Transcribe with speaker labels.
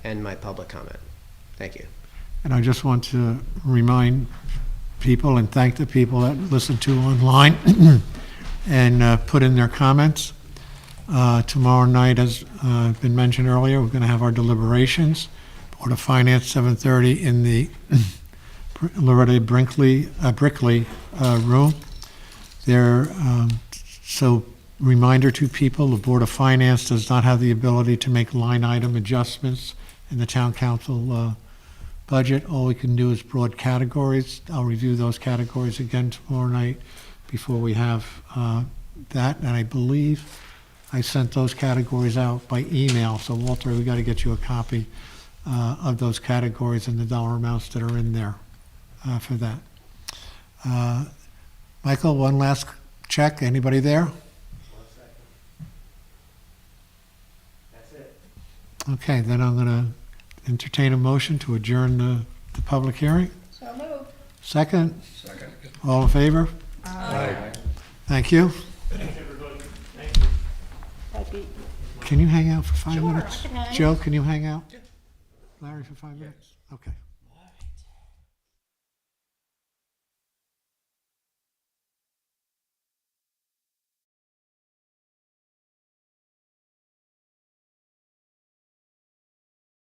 Speaker 1: end my public comment. Thank you.
Speaker 2: And I just want to remind people and thank the people that listen to online and uh, put in their comments. Uh, Tomorrow night, as uh, been mentioned earlier, we're going to have our deliberations. Board of Finance, 7:30 in the Loretta Brinkley, uh, Brickley uh, Room. There, um, so reminder to people, the Board of Finance does not have the ability to make line item adjustments in the town council uh, budget. All we can do is broad categories. I'll review those categories again tomorrow night before we have uh, that. And I believe I sent those categories out by email. So Walter, we got to get you a copy uh, of those categories and the dollar amounts that are in there uh, for that. Uh, Michael, one last check. Anybody there? Okay, then I'm going to entertain a motion to adjourn the, the public hearing.
Speaker 3: So moved.
Speaker 2: Second? Second. All in favor? Thank you.
Speaker 3: Happy
Speaker 2: Can you hang out for five
Speaker 3: Sure, I
Speaker 2: minutes?
Speaker 3: can hang.
Speaker 2: Joe, can you hang out? Larry, for five minutes? Okay.